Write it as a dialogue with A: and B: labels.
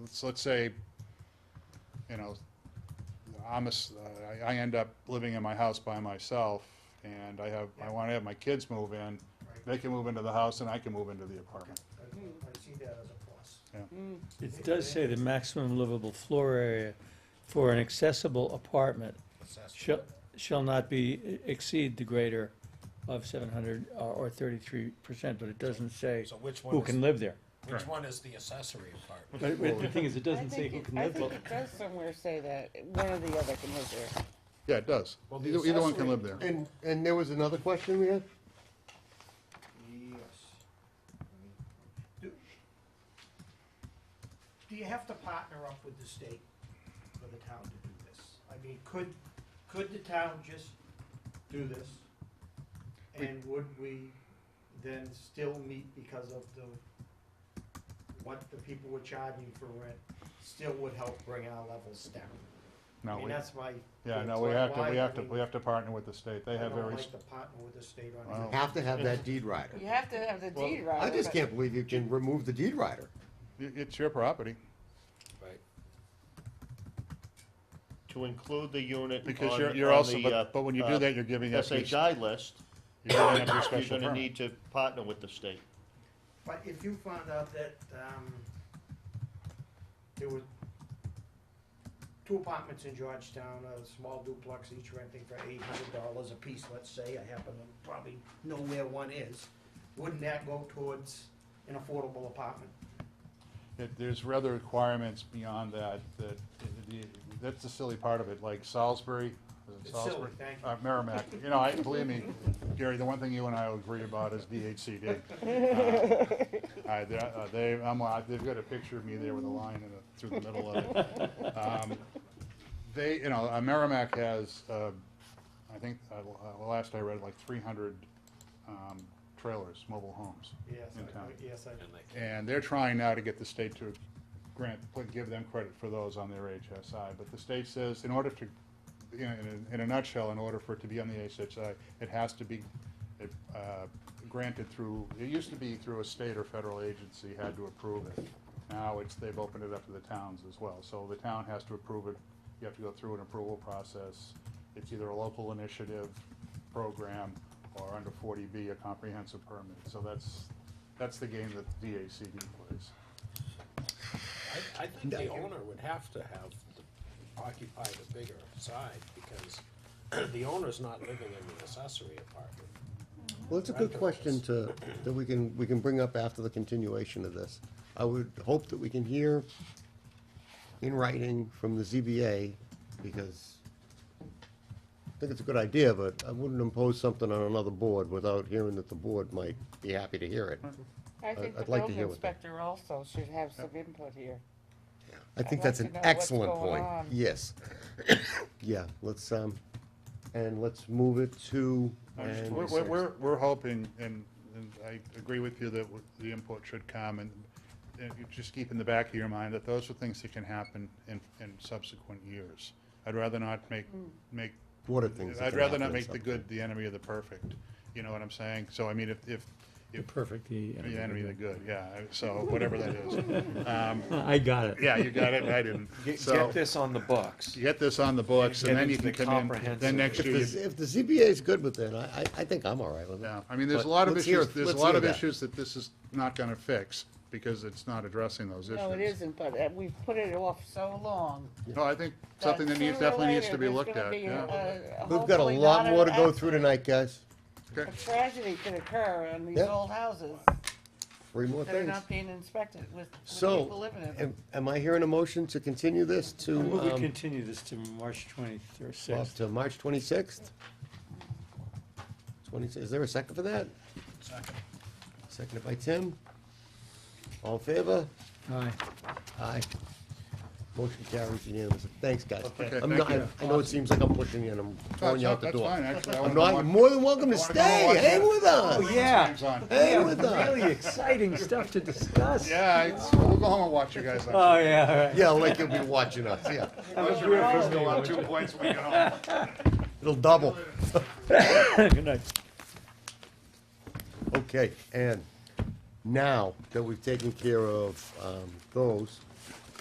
A: let's, let's say, you know, I'm a s I I end up living in my house by myself, and I have, I wanna have my kids move in,
B: Right.
A: they can move into the house and I can move into the apartment.
B: I I see that as a plus.
C: It does say the maximum livable floor area for an accessible apartment shall, shall not be, e, exceed the greater of seven hundred uh, or thirty-three percent, but it doesn't say
D: So which one
C: who
D: is,
C: can live there.
D: which one is the accessory apartment?
C: But but the thing is, it doesn't
E: I
C: say
E: think
C: who
E: it-
C: can
E: I
C: live
E: think
C: there.
E: it does somewhere say that, one or the other can live there.
A: Yeah, it does.
D: Well, the
A: Either, either one can
D: accessory-
A: live there.
F: And, and there was another question we had?
B: Yes. Do do you have to partner up with the state for the town to do this? I mean, could, could the town just do this?
A: We-
B: And would we then still meet because of the, what the people were charging for rent, still would help bring our levels down? I
A: No,
B: mean,
A: we,
B: that's my.
A: yeah, no,
B: that's
A: we
B: why-
A: have to,
B: why
A: we
B: do
A: have to, we have to partner with the state. They
B: I
A: have
B: don't
A: very,
B: like
A: s-
B: to partner with the state on
A: Wow.
B: anything.
F: Have to have that deed rider.
E: You have to have the deed right.
F: I just can't believe you can remove the deed rider.
A: it- it's your property.
D: Right.
G: to include the unit
A: Because
G: on-
A: you're, you're
G: on
A: also,
G: the, uh,
A: but, but when you
G: uh,
A: do that, you're giving up your, you're
G: SHI list,
A: giving up your
G: you're
A: special
G: gonna
A: permit.
G: need to partner with the state.
B: But if you found out that, um, there were two apartments in Georgetown, a small duplex, each renting for eight hundred dollars apiece, let's say, I happen to probably know where one is, wouldn't that go towards an affordable apartment?
A: It- There's rather requirements beyond that, that, the- that's the silly part of it, like Salisbury, is it
B: It's
A: Salisbury?
B: silly, thank you.
A: Uh, Merrimack, you know, I, believe me, Gary, the one thing you and I will agree about is DHCD. Uh, I, they- uh, they, I'm, uh, they've got a picture of me there with a line in the, through the middle of it. Um, They, you know, uh, Merrimack has, uh, I think, uh, uh, last I read, like three hundred, um, trailers, mobile homes.
B: Yes,
A: In
B: I,
A: town.
B: yes, I,
A: And they're trying now to get the state to grant, put- give them credit for those on their HSI, but the state says in order to, you know, in a, in a nutshell, in order for it to be on the HSI, it has to be, uh, granted through, it used to be through a state or federal agency had to approve it. Now it's, they've opened it up to the towns as well, so the town has to approve it, you have to go through an approval process. It's either a local initiative program or under forty B, a comprehensive permit, so that's, that's the game that DACD plays.
D: I, I think the owner would have to have the- occupy the bigger side, because the owner's not living in the accessory apartment.
F: Well, it's a good question to, that we can, we can bring up after the continuation of this. I would hope that we can hear in writing from the ZBA, because I think it's a good idea, but I wouldn't impose something on another board without hearing that the board might be happy to hear it.
E: I think the
F: uh, I'd like to
E: building
F: hear what they-
E: inspector also should have some input here.
F: I think
E: I'd
F: that's
E: like to
F: an
E: know what's
F: excellent
E: going
F: point.
E: on.
F: Yes. Yeah, let's, um, and let's move it to. and-
A: We're, we're- we're, we're hoping, and, and I agree with you that w- the input should come, and, and you just keep in the back of your mind that those are things that can happen in, in subsequent years. I'd rather not make, make.
F: What are things that
A: I'd
F: can
A: rather
F: happen
A: not
F: in
A: make the
F: subsequent-
A: good the enemy of the perfect, you know what I'm saying? So I mean, if, if, if,
C: Perfect,
A: the enemy of the good, yeah, so whatever that is. Um,
C: I got it.
A: yeah, you got it, I didn't.
H: Get,
A: So,
H: get this on the books.
A: Get this on the books, and
H: Get
A: then you
H: into
A: can
H: the
A: come in, then
H: comprehensive-
A: next
F: If
A: year. you-
F: the, if the ZBA is good with it, I, I, I think I'm all right with it.
A: Yeah, I mean, there's a
F: But
A: lot of
F: let's hear-
A: issues, there's a
F: let's
A: lot
F: hear
A: of
F: that.
A: issues that this is not gonna fix, because it's not addressing those issues.
E: No, it isn't, but uh, we've put it off so long.
A: No, I think
E: that
A: something that needs,
E: sooner or
A: definitely needs
E: later
A: to be
E: there's
A: looked
E: gonna
A: at,
E: be a-
A: yeah.
E: a-
F: We've got a
E: hopefully
F: lot
E: not
F: more to
E: an
F: go through
E: accident.
F: tonight, guys.
A: Okay.
E: A tragedy could occur on these
F: Yep.
E: old houses
F: Three more
E: that are
F: things.
E: not being inspected with with people
F: So,
E: living in them.
F: am, am I hearing a motion to continue this to,
C: We
F: um,
C: continue this to March twenty-third,
F: well, to March twenty-sixth? Twenty, is there a second for that? Second. Seconded by Tim. All in favor?
C: Aye.
F: Aye. Motion carries unanimously. Thanks, guys.
A: Okay,
F: I'm
A: thank
F: not, I
A: you.
F: I know it seems like I'm pushing you and I'm throwing you out the
A: That's
F: door.
A: fine, actually, I
F: I'm
A: wanna
F: not, Oh,
A: watch-
F: you're more than welcome to
A: I wanna
F: stay.
A: go watch Oh,
F: Hang
A: that.
F: with us.
C: Yeah,
A: Game's on.
F: Hang with us.
C: really exciting stuff to discuss.
A: Yeah, it's, we'll go home and watch you guys. on-
C: Oh, yeah, all right.
F: Yeah, like you'll be watching us, yeah.
A: Watch your Redskins go on two points when we get home.
F: It'll double.
C: Good night.
F: Okay, and now that we've taken care of um, those,